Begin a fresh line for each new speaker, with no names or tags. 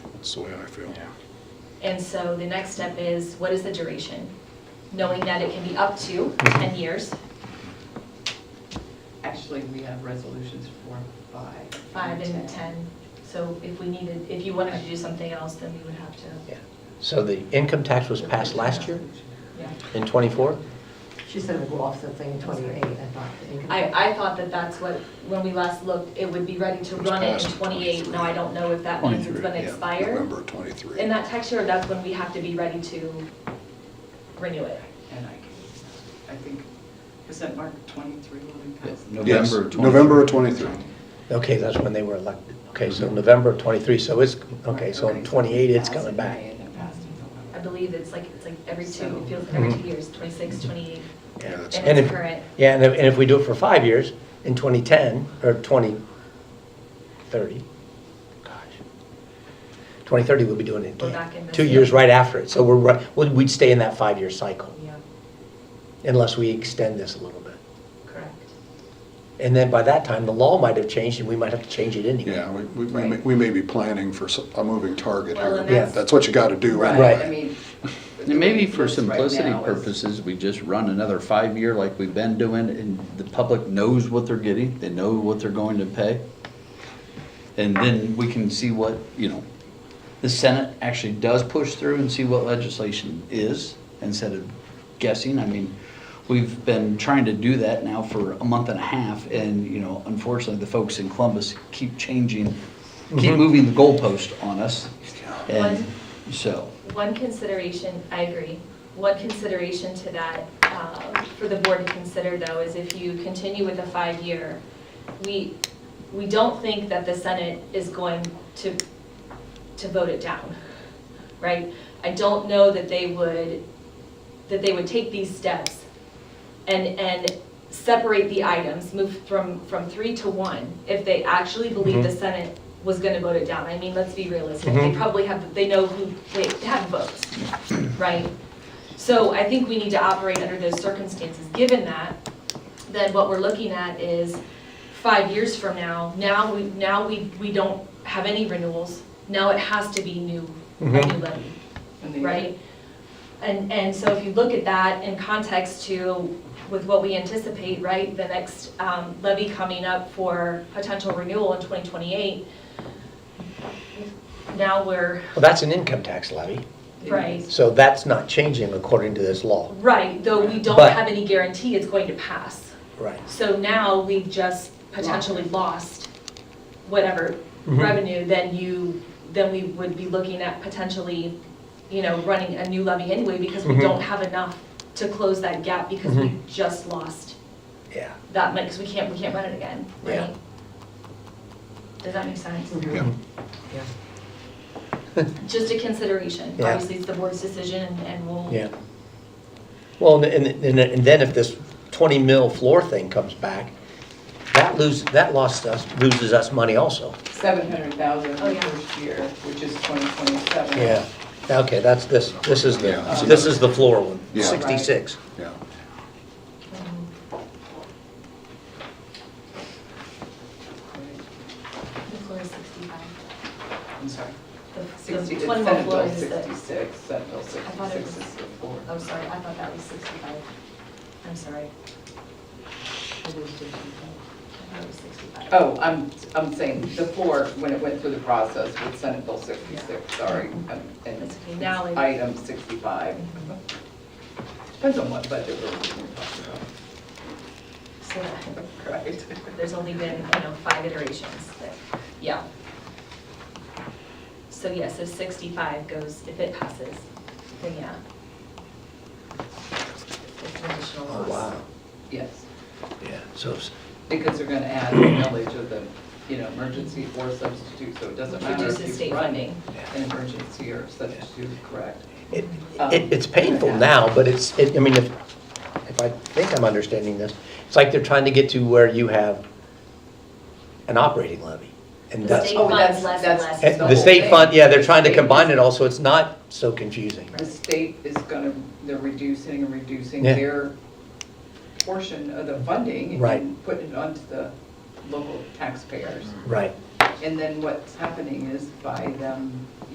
That's the way I feel.
Yeah.
And so the next step is, what is the duration? Knowing that it can be up to 10 years,
Actually, we have resolutions for five.
five and 10. So if we needed, if you wanted to do something else, then we would have to,
Yeah. So the income tax was passed last year
yeah.
in '24?
She said it would go off the thing 28, I thought. the income tax.
I, I thought that that's what, when we last looked, it would be ready to
It was
run it in
passed in
28.
23.
Now, I don't know if that means it's
23,
going to
Yeah,
expire.
November 23.
In that tax year, that's when we have to be ready to renew it.
And I can, I think, is that Mark 23 when we passed?
Yes,
November of 23.
November of 23.
Okay, that's when they were elected. Okay, so November of '23, so it's, okay, so in '28, it's
Passed
coming
in
back.
May and it passed in November.
I believe it's like, it's like every two, it feels like every
Mhm.
two years, 26, 28.
Yeah,
Yeah.
that's-
And it's
if-
current.
Yeah, and if, and if we do it for five years, in 2010, or 2030, gosh, 2030, we'll be doing it
We're back in
again.
this
Two years
year.
right after it, so we're, right- we'd we'd stay in that five-year cycle,
Yeah,
unless we extend this a little bit.
correct.
And then by that time, the law might have changed, and we might have to change it anyway.
Yeah, we- we, we may- we may be planning for so- a moving target
Well,
here.
and
that's-
That's what you got to do
Right,
anyway.
I mean.
And maybe for
Right now
simplicity
is-
purposes, we just run another five-year like we've been doing, and the public knows what they're getting, they know what they're going to pay. And then we can see what, you know, the Senate actually does push through and see what legislation is, instead of guessing. I mean, we've been trying to do that now for a month and a half, and, you know, unfortunately, the folks in Columbus keep changing, keep
Mhm.
moving the goalpost on us, and
One-
so.
One consideration, I agree, one consideration to that, uh, for the board to consider though, is if you continue with a five-year, we, we don't think that the Senate is going to, to vote it down, right? I don't know that they would, that they would take these steps and, and separate the items, move from, from three to one, if they actually believe the
Mhm.
Senate was gonna vote it down. I mean, let's be realistic, they
Mhm.
probably have, they know who, they have votes, right? So I think we need to operate under those circumstances. Given that, then what we're looking at is five years from now, now we, now we, we don't have any renewals. Now it has to be new, a new
Mhm.
levy
and the-
right? And, and so if you look at that in context to, with what we anticipate, right, the next um, levy coming up for potential renewal in 2028, now we're,
Well, that's an income tax levy,
right,
so that's not changing according to this law.
right, though we don't
But-
have any guarantee it's going to pass.
Right.
So now we've just potentially lost whatever
Mhm.
revenue, then you, then we would be looking at potentially, you know, running a new levy anyway because we
Mhm.
don't have enough to close that gap because we
Mhm.
just lost
Yeah.
that money, because we can't, we can't run it again,
Yeah.
right? Does that make sense?
Mhm.
Yeah.
Yeah.
Just a consideration.
Yeah.
Obviously, it's the board's decision and- and we'll.
Yeah. Well, and, and, and then if this twenty mil floor thing comes back, that lose, that lost us, loses us money also.
700,000
Oh,
the
yeah.
first year, which is 2027.
Yeah, okay, that's this, this is the,
Yeah.
this is the floor one,
Yeah.
sixty-six.
Yeah.
Mhm. The floor is 65.
I'm sorry.
The- the
60, it's
21
Senate
floor
Bill
is the-
66, Senate Bill
thought it
66 is the floor.
I'm sorry, I thought that was 65. I'm sorry. I thought it was 65.
Oh, I'm, I'm saying the floor, when it went through the process with Senate Bill 66, sorry. um, and
Mm-hmm. That's okay. Now Mm-hmm. it-
Item 65. Depends on what budget we're talking about,
So that-
right?
there's only been, you know, five iterations, but, yeah. So yes, if 65 goes, if it passes, then yeah. It's an additional
Oh,
loss.
wow,
Yes,
yeah, so, it's-
because they're going to add the
Mm-hmm.
millage of the, you know, emergency or substitute, so it doesn't matter
Reduces
if
state
you run an
funding.
emergency or substitute, correct?
it, it, it's painful now, but it's, it, I mean, if, if I think I'm understanding this, it's like they're trying to get to where you have an operating levy. And
The
that's,
state
Oh,
funds
that's-
less and
that's-
less.
It's the
the state
whole
fund,
thing.
yeah, they're trying to
State is-
combine it all, so it's not so confusing.
The state is going to, they're reducing and reducing
Yeah.
their portion of the funding.
Right.
And putting it onto the local taxpayers.
Right,
And then what's happening is by them